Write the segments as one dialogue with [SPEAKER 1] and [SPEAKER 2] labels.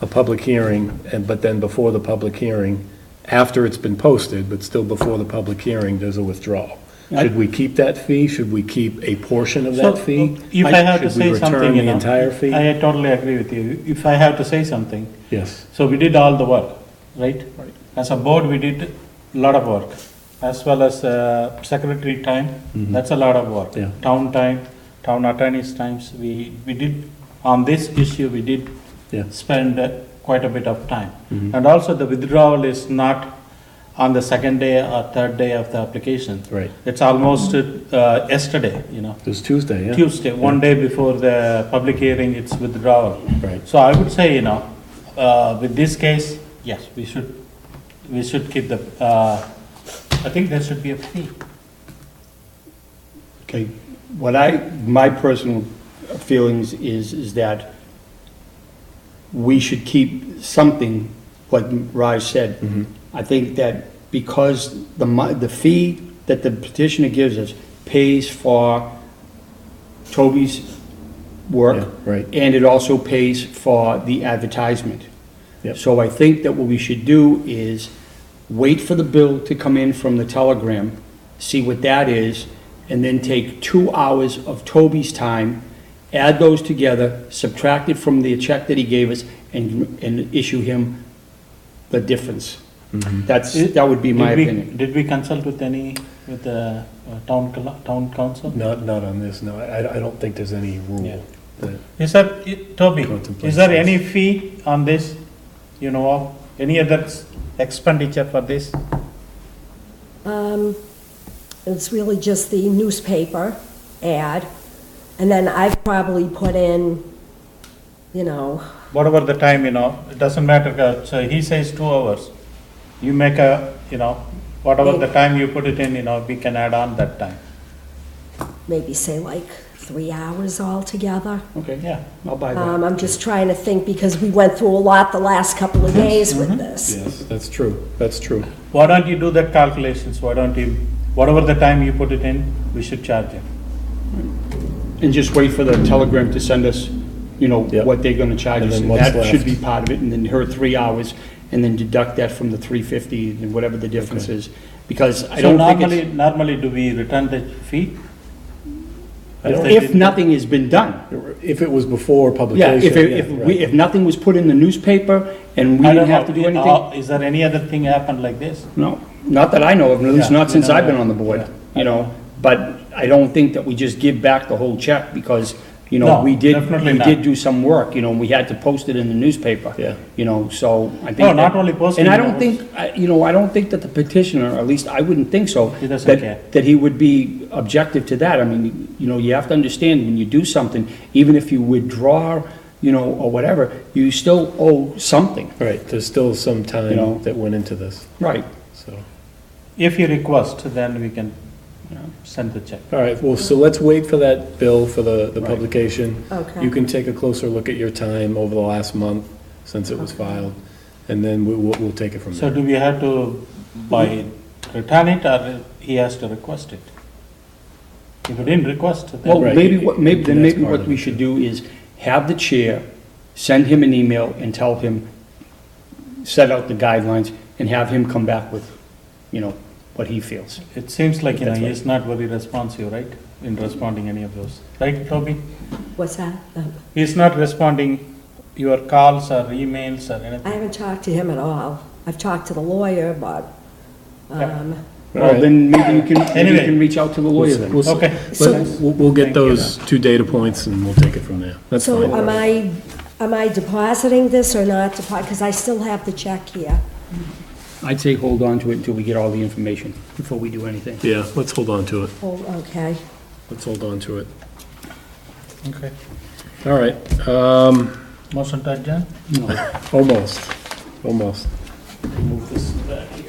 [SPEAKER 1] a public hearing, and, but then before the public hearing, after it's been posted, but still before the public hearing, there's a withdrawal.
[SPEAKER 2] I-
[SPEAKER 1] Should we keep that fee? Should we keep a portion of that
[SPEAKER 2] So,
[SPEAKER 1] fee?
[SPEAKER 2] If I have to say
[SPEAKER 1] Should we return
[SPEAKER 2] something, you
[SPEAKER 1] the
[SPEAKER 2] know.
[SPEAKER 1] entire fee?
[SPEAKER 2] I totally agree with you. If I have to say something,
[SPEAKER 1] Yes,
[SPEAKER 2] so we did all the work, right? Right. As a board, we did a lot of work, as well as uh, secretary time, that's a lot of work.
[SPEAKER 1] Mm-hmm. Yeah.
[SPEAKER 2] Town time, town attorney's times, we, we did, on this issue, we did
[SPEAKER 1] yeah,
[SPEAKER 2] spend uh, quite a bit of time.
[SPEAKER 1] Mm-hmm.
[SPEAKER 2] And also, the withdrawal is not on the second day or third day of the application.
[SPEAKER 1] right.
[SPEAKER 2] It's almost uh, yesterday, you know.
[SPEAKER 1] It was Tuesday, yeah?
[SPEAKER 2] Tuesday, one day before the public hearing, it's withdrawal.
[SPEAKER 1] Right.
[SPEAKER 2] So I would say, you know, uh, with this case, yes, we should, we should keep the, uh, I think there should be a fee.
[SPEAKER 3] Okay, what I, my personal feelings is, is that we should keep something, what Raj said. I think that because the mo- the fee that the petitioner gives us pays for Toby's
[SPEAKER 1] Yeah,
[SPEAKER 3] work.
[SPEAKER 1] right.
[SPEAKER 3] And it also pays for the advertisement.
[SPEAKER 1] Yep.
[SPEAKER 3] So I think that what we should do is wait for the bill to come in from the telegram, see what that is, and then take two hours of Toby's time, add those together, subtract it from the check that he gave us, and, and issue him the difference.
[SPEAKER 1] Mm-hmm.
[SPEAKER 3] That's, that would be my
[SPEAKER 2] Did we-
[SPEAKER 3] opinion.
[SPEAKER 2] Did we consult with any, with the uh, town, cl- town
[SPEAKER 3] Mm.
[SPEAKER 2] council?
[SPEAKER 1] Not, not on this, no. I, I don't think there's any
[SPEAKER 2] Yeah.
[SPEAKER 1] rule that
[SPEAKER 2] Is there, i- Toby,
[SPEAKER 1] Contemplate
[SPEAKER 2] is there
[SPEAKER 1] this.
[SPEAKER 2] any fee on this, you know, of, any other s- expenditure for this?
[SPEAKER 4] Um, It's really just the newspaper ad, and then I've probably put in, you know,
[SPEAKER 2] whatever the time, you know, it doesn't matter, uh, so he says two hours. You make a, you know, whatever the time you put it in, you know, we can add on that time.
[SPEAKER 4] maybe say like three hours altogether.
[SPEAKER 3] Okay,
[SPEAKER 2] Yeah,
[SPEAKER 3] I'll buy that.
[SPEAKER 4] Um, I'm just trying to think, because we went through a lot the last couple
[SPEAKER 1] Mm-hmm.
[SPEAKER 4] of days with this.
[SPEAKER 1] Yes, that's true, that's true.
[SPEAKER 2] why don't you do that calculations, why don't you, whatever the time you put it in, we should charge him.
[SPEAKER 3] And just wait for the telegram to send us, you know,
[SPEAKER 1] Yep.
[SPEAKER 3] what they're gonna charge
[SPEAKER 1] And
[SPEAKER 3] us.
[SPEAKER 1] then
[SPEAKER 3] And
[SPEAKER 1] what's
[SPEAKER 3] that should
[SPEAKER 1] left.
[SPEAKER 3] be part of it, and then her three hours, and then deduct that from the three fifty, and whatever the difference is. Because I
[SPEAKER 2] So
[SPEAKER 3] don't think
[SPEAKER 2] normally,
[SPEAKER 3] it's,
[SPEAKER 2] normally do we return the fee?
[SPEAKER 1] I don't-
[SPEAKER 2] they
[SPEAKER 3] if
[SPEAKER 2] didn't-
[SPEAKER 3] nothing has been done.
[SPEAKER 1] If it was before
[SPEAKER 3] Yeah,
[SPEAKER 1] publication.
[SPEAKER 3] if, it- if, we-
[SPEAKER 1] right.
[SPEAKER 3] if nothing was put in the newspaper, and we
[SPEAKER 2] I
[SPEAKER 3] didn't
[SPEAKER 2] don't
[SPEAKER 3] have
[SPEAKER 2] know,
[SPEAKER 3] to do
[SPEAKER 2] you
[SPEAKER 3] anything,
[SPEAKER 2] know, Is there any other thing happened like this?
[SPEAKER 3] no, not that I know of, at least
[SPEAKER 2] Yeah,
[SPEAKER 3] not
[SPEAKER 2] you
[SPEAKER 3] since
[SPEAKER 2] know,
[SPEAKER 3] I've been on the board,
[SPEAKER 2] yeah.
[SPEAKER 3] you know? But I don't think that we just give back the whole check, because, you know,
[SPEAKER 2] No,
[SPEAKER 3] we did,
[SPEAKER 2] definitely
[SPEAKER 3] we
[SPEAKER 2] not.
[SPEAKER 3] did do some work, you know, and we had to post it in the newspaper.
[SPEAKER 1] Yeah.
[SPEAKER 3] You know, so I think.
[SPEAKER 2] No, Oh, not
[SPEAKER 3] that-
[SPEAKER 2] only posting,
[SPEAKER 3] And I
[SPEAKER 2] you
[SPEAKER 3] don't
[SPEAKER 2] know,
[SPEAKER 3] think, I- you know, I don't think that the petitioner, or at least I wouldn't think so.
[SPEAKER 2] He doesn't
[SPEAKER 3] that-
[SPEAKER 2] care.
[SPEAKER 3] That he would be objective to that. I mean, you know, you have to understand, when you do something, even if you withdraw, you know, or whatever, you still owe something.
[SPEAKER 1] Right, there's still some
[SPEAKER 3] You know.
[SPEAKER 1] time that went into this,
[SPEAKER 3] Right.
[SPEAKER 1] so.
[SPEAKER 2] If you request, then we can you know, send the check.
[SPEAKER 1] All right, well, so let's wait for that bill for the, the
[SPEAKER 3] Right.
[SPEAKER 1] publication.
[SPEAKER 4] Okay.
[SPEAKER 1] You can take a closer look at your time over the last month, since it was filed, and then we, we'll, we'll take it from
[SPEAKER 2] So
[SPEAKER 1] there.
[SPEAKER 2] do we have to by return it or he has to request it? If he didn't request,
[SPEAKER 3] Well,
[SPEAKER 2] then,
[SPEAKER 1] Right,
[SPEAKER 3] maybe,
[SPEAKER 1] you-
[SPEAKER 3] what
[SPEAKER 1] you
[SPEAKER 3] maybe,
[SPEAKER 1] can
[SPEAKER 3] then
[SPEAKER 1] ask
[SPEAKER 3] maybe what
[SPEAKER 1] Marlon
[SPEAKER 3] we
[SPEAKER 1] to-
[SPEAKER 3] should do is have the chair send him an email and tell him, set out the guidelines and have him come back with, you know, what he feels.
[SPEAKER 2] it seems like, you know,
[SPEAKER 1] That's right.
[SPEAKER 2] he's not very responsive, right? In responding any of those, right, Toby?
[SPEAKER 4] What's that? Um,
[SPEAKER 2] He's not responding your calls or emails or
[SPEAKER 4] I
[SPEAKER 2] anything.
[SPEAKER 4] haven't talked to him at all. I've talked to the lawyer, but, um,
[SPEAKER 1] All
[SPEAKER 3] Well,
[SPEAKER 1] right.
[SPEAKER 3] then maybe you can, maybe you
[SPEAKER 2] Anyway.
[SPEAKER 3] can reach out to the
[SPEAKER 1] We'll
[SPEAKER 3] lawyer
[SPEAKER 1] s-
[SPEAKER 3] then.
[SPEAKER 1] we'll s-
[SPEAKER 2] Okay.
[SPEAKER 1] let-
[SPEAKER 4] So-
[SPEAKER 1] We'll, we'll
[SPEAKER 2] Thank you.
[SPEAKER 1] get those two data points and we'll take it from there. That's fine.
[SPEAKER 4] so uh, am I, am I depositing this or not depositing? Because I still have the check here.
[SPEAKER 3] I'd say hold on to it until we get all the information before we do anything.
[SPEAKER 1] Yeah, let's hold on to it.
[SPEAKER 4] Oh, okay.
[SPEAKER 1] Let's hold on to it.
[SPEAKER 2] Okay.
[SPEAKER 1] All right, um,
[SPEAKER 2] Motion to adjourn?
[SPEAKER 1] almost, almost.
[SPEAKER 2] Move this back here.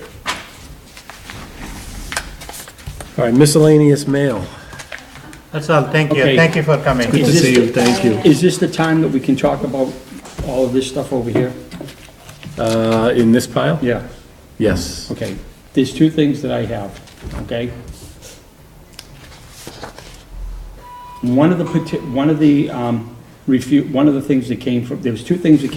[SPEAKER 1] All right, miscellaneous mail.
[SPEAKER 2] That's all, thank you,
[SPEAKER 3] Okay.
[SPEAKER 2] thank you for coming.
[SPEAKER 1] Good to
[SPEAKER 3] Is this
[SPEAKER 1] see
[SPEAKER 3] the-
[SPEAKER 1] you, thank you.
[SPEAKER 3] Is this the time that we can talk about all of this stuff over here?
[SPEAKER 1] Uh, in this pile?
[SPEAKER 3] Yeah.
[SPEAKER 1] Yes.
[SPEAKER 3] Okay, there's two things that I have, okay? One of the, peti- one of the, um, refu, one of the things that came from, there was two things that